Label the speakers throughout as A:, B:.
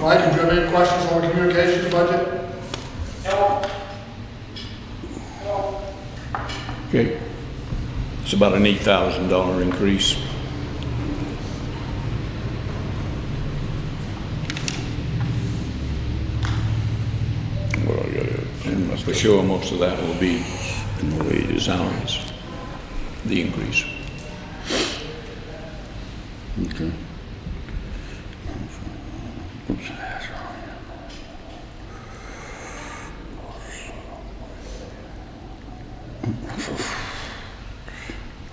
A: Mike, did you have any questions on the communications budget?
B: Okay. It's about an eight thousand dollar increase. Well, I gotta- And for sure, most of that will be in the wages allowance, the increase.
C: Okay.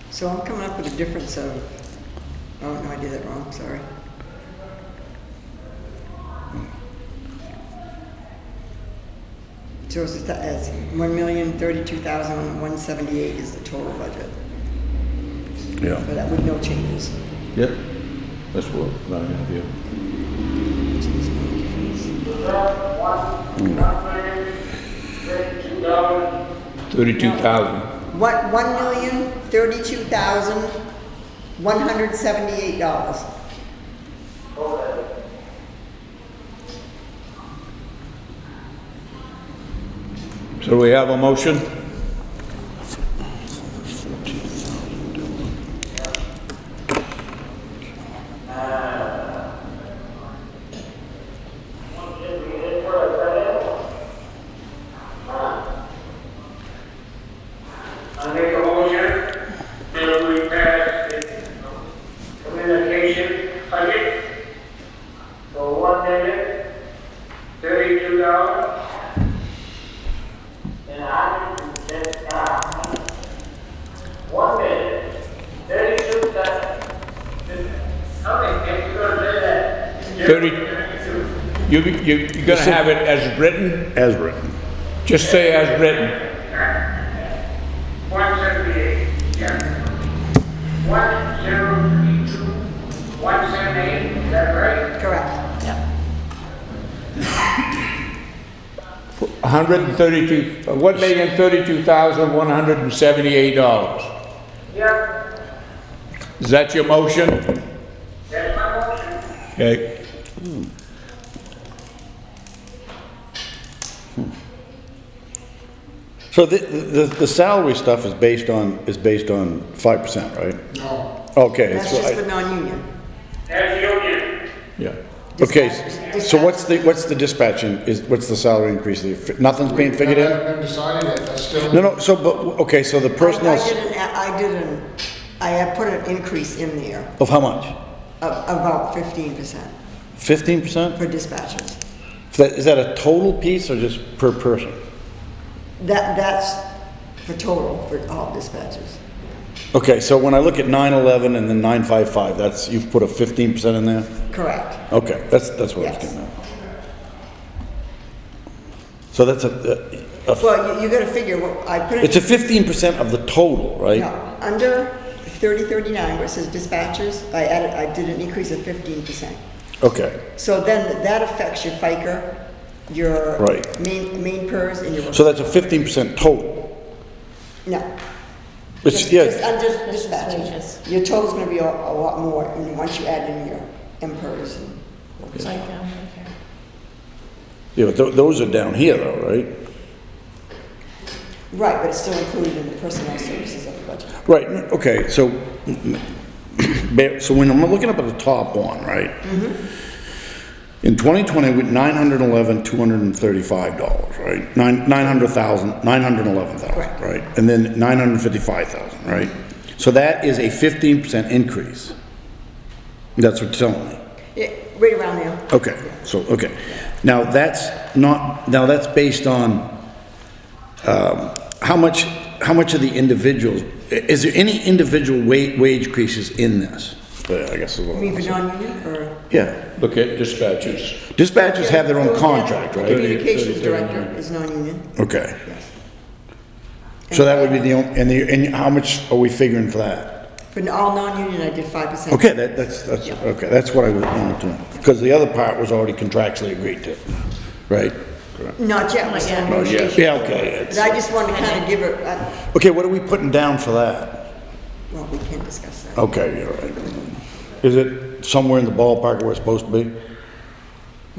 D: So I'm coming up with a difference of, oh, no, I did that wrong, sorry. So it's, a th- it's one million thirty-two thousand one seventy-eight is the total budget,
C: Yeah.
D: but that with no changes.
B: Yep. That's what I'm gonna do. Thirty-two thousand,
D: What, one million thirty-two thousand one hundred seventy-eight dollars.
B: so we have a motion?
E: I make a motion that we pass the communication budget for one million, thirty-two dollars. And I, that, uh, one million, thirty-two dollars. Okay, if you're gonna do that.
B: Thirty-
E: Thirty-two.
B: You, you, you're gonna have it as written?
C: As written.
B: Just say as written.
E: One seventy-eight, yeah. One zero three two, one seventy-eight, is that right?
D: Correct.
B: hundred and thirty-two, one million thirty-two thousand one hundred and seventy-eight dollars.
E: Yep,
B: Is that your motion?
E: that's my motion.
B: Okay.
C: So the, the, the salary stuff is based on, is based on five percent, right?
A: No.
C: Okay,
D: That's
C: so
D: just for
C: I,
D: non-union.
E: That's union.
B: Yeah.
C: okay,
D: Dispatch-
C: so what's the, what's the dispatching, is, what's the salary increase? The- Nothing's being figured
A: That
C: in?
A: hasn't been decided yet, that's still.
C: No, no, so, but, okay, so the personnel
D: I I
C: s-
D: did an, I did an, I had put an increase in there
C: of how much?
D: of about fifteen percent
C: Fifteen percent?
D: for dispatchers.
C: Is that a total piece or just per person?
D: That, that's for total, for all dispatchers.
C: Okay, so when I look at nine eleven and then nine five five, that's, you've put a fifteen percent in there?
D: Correct.
C: Okay, that's, that's what I was
D: Yes.
C: getting at. So that's a, a- a-
D: Well, you, you gotta figure, what I put
C: it's a
D: it,
C: fifteen percent of the total,
D: no,
C: right?
D: under thirty thirty-nine, where it says dispatchers, I added, I did an increase of fifteen percent.
C: Okay,
D: So then that affects your FICA, your
C: Right.
D: main, main PERS and your,
C: so that's a fifteen percent total.
D: no.
C: It's,
D: Just- Just
C: yeah,
D: under dispatchers. Your total's gonna be a, a lot more, and once you add in your MPERS and.
C: yeah, but tho- those are down here though, right?
D: Right, but it's still included in the personnel services of the budget.
C: Right, n- okay, so, ba- so when I'm looking up at the top one, right?
D: Mm-hmm.
C: In 2020, we, 911, 235 dollars, right? Nine, 900,000, 911,000,
D: Correct.
C: right? And then 955,000, right? So that is a 15% increase. That's what it's telling me.
D: Yeah, right around there.
C: Okay, so, okay. Now, that's not, now that's based on, um, how much, how much of the individuals, i- is there any individual wa- wage increases in this? Uh, I guess is what
D: You
C: I'm
D: mean for
C: saying.
D: non-union or
C: Yeah,
B: Look at dispatches.
C: dispatchers have their own contract, right?
B: Thirty-
D: communications
B: thirty-
D: director is non-union?
C: Okay. So that would be the, on- and the, and how much are we figuring for that?
D: For all non-union, I did five percent.
C: Okay, that, that's, that's, okay, that's what I was wanted to, because the other part was already contractually agreed to, right?
D: Not yet, we're still negotiating.
C: Yeah, okay,
D: But
C: it's-
D: I just wanted to kind of give it, uh,
C: okay, what are we putting down for that?
D: well, we can't discuss that.
C: Okay, you're right. Is it somewhere in the ballpark where it's supposed to be?